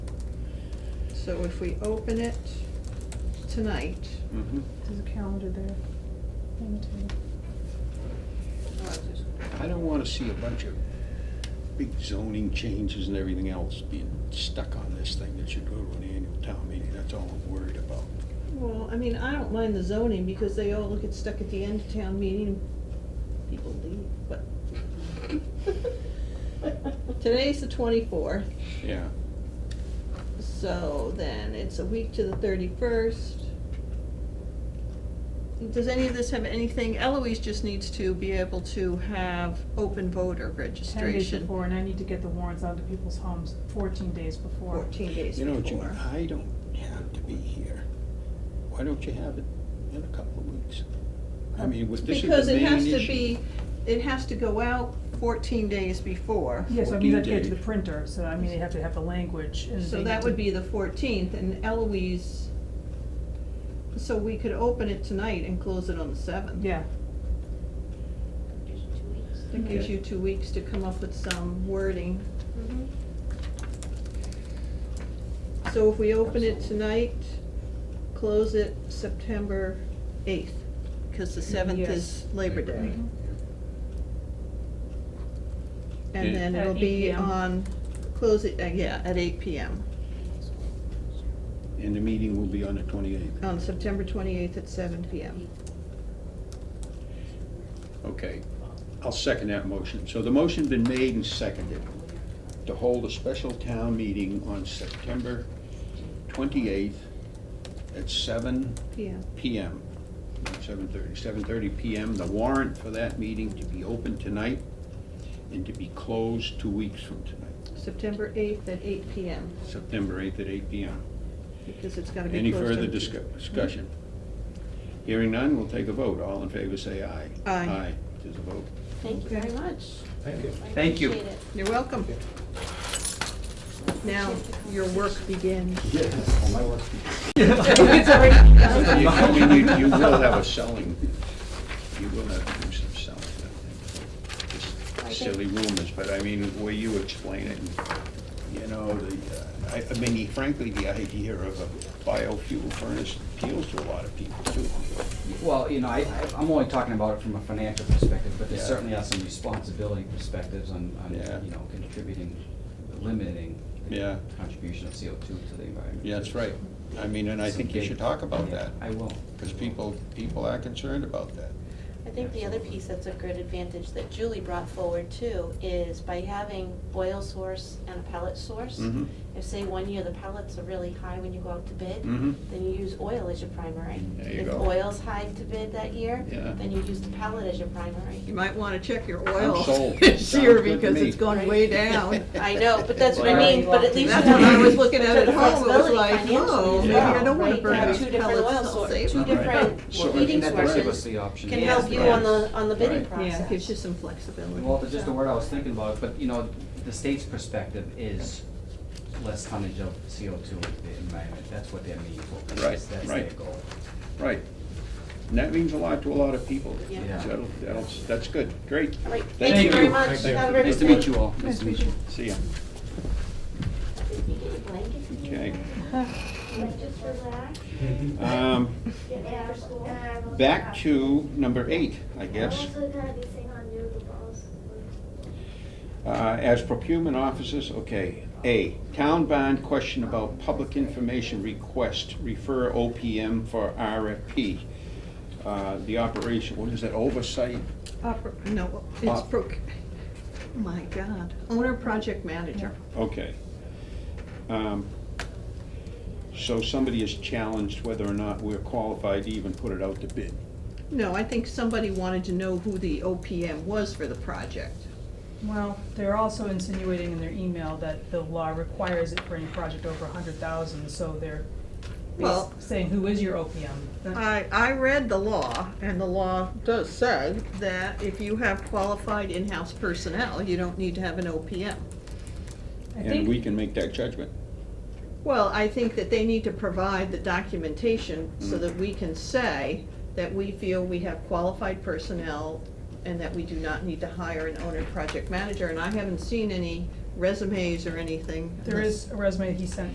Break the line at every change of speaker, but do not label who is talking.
So if we open it tonight,
Mhm.
There's a calendar there. Thing too.
I don't wanna see a bunch of big zoning changes and everything else being stuck on this thing that should go to an annual town meeting, that's all I'm worried about.
well, I mean, I don't mind the zoning because they all get stuck at the end of town meeting. People leave, but. Today's the twenty-fourth,
Yeah,
so then it's a week to the thirty-first. Does any of this have anything, Eloise just needs to be able to have open voter
Ten days
registration
before, and I need to get the warrants out to people's homes fourteen days before.
fourteen days
you know, Jim,
before.
I don't have to be here. Why don't you have it in a couple of weeks? I mean, with this is the main
Because
issue.
it has to be, it has to go out fourteen days before.
Yes, I mean, I have to
14
get to the
days.
printer, so I mean, they have to have the language and.
So
they
that
need
would
to-
be the fourteenth, and Eloise, so we could open it tonight and close it on the seventh.
Yeah,
Just two weeks.
That gives
Okay.
you two weeks to come up with some wording.
Mhm.
So if we open it
Absolutely.
tonight, close it September eighth, because the seventh is
Yes.
Labor Day.
Mhm.
And
Yeah.
then
At
it'll
8
be
PM.
on, close it, uh, yeah, at eight PM,
And the meeting will be on the twenty-eighth.
on September twenty-eighth at seven PM.
Okay, I'll second that motion. So the motion been made and seconded to hold a special town meeting on September twenty-eighth at seven
PM.
PM, not 7:30, 7:30 PM. The warrant for that meeting to be open tonight and to be closed two weeks from tonight,
September 8th at 8 PM,
September 8th at 8 PM.
because it's gotta be
Any
closed
further
every-
discu- discussion? Hearing none, we'll take a vote. All in favor, say aye.
Aye.
Aye, it is a vote.
Thank you very much.
Thank you.
I
Thank you.
appreciate it.
You're welcome. Now, your work begins.
Yes, all my work.
You, I mean, you, you will have a selling, you will have to do some selling, I think. Just Silly rumors, but I mean, the way you explain it, you know, the, uh, I, I mean, frankly, the idea of a biofuel furnace appeals to a lot of people too.
Well, you know, I, I- I'm only talking about it from a financial perspective, but there
Yeah.
certainly are some responsibility perspectives on, on,
Yeah.
you know, contributing, limiting
Yeah.
the contribution of CO2 to the environment.
Yeah, that's right. I mean, and I think you should talk about
Yeah,
that,
I will.
because people, people are concerned about that.
I think the other piece that's a great advantage that Julie brought forward too is by having oil source and a pellet source.
Mhm.
If say one year the pellets are really high when you go out to bid,
Mhm.
then you use oil as your primary.
There you
if
go.
oil's high to bid that year,
Yeah.
then you use the pellet as your primary.
You might wanna check your oil
I'm sold.
this year
Sounds good to
because
me.
it's gone way down.
I know, but that's what I
Well,
mean, but at least.
That's
you
what I
have-
was looking at at
the
home, it was
flexibility
like,
financially
whoa,
as
maybe I
well,
don't wanna
right?
burn
To have
these
pellets, I'll save
Two
them.
different
So
oil sources, two different heating
that does give us
sources
the option.
can
to
help
ask
you
the
on
brands.
the, on the bidding
Right.
process.
Yeah, it gives you some flexibility.
Well, that's just the
So-
word I was thinking about, but you know, the state's perspective is less tonnage of CO2 in the environment, that's what they're meaning for.
Right,
That's their
right.
goal.
Right. And that means a lot to a lot of people.
Yeah.
Yeah.
So that'll- that'll- that's good, great.
All right,
Thank
thank you very
you.
much.
Thank you.
Have a great
Nice to
day.
meet you all.
Nice to meet you.
See ya.
Blanket for you.
Okay.
Like, just relax,
Um,
get ready for school.
Back to number eight, I
I'm
guess.
also gonna be sitting on noodle balls.
Uh, As procurement officers, okay. A, town bond question about public information request, refer OPM for RFP. Uh, The operation, what is that, oversight?
Oper- Uh, No, it's
Op-
proc, my God, owner project manager.
Okay. Um, So somebody is challenged whether or not we're qualified to even put it out to bid.
No, I think somebody wanted to know who the OPM was for the project.
well, they're also insinuating in their email that the law requires it for any project over a hundred thousand, so they're bas-
Well-
saying, who is your OPM? That-
I, I read the law, and the law does say that if you have qualified in-house personnel, you don't need to have an OPM.
I
And we
think,
can make that judgment.
Well, I think that they need to provide the documentation so
Mm.
that we can say that we feel we have qualified personnel and that we do not need to hire an owner project manager, and I haven't seen any resumes or anything.
there
unless-
is a resume he sent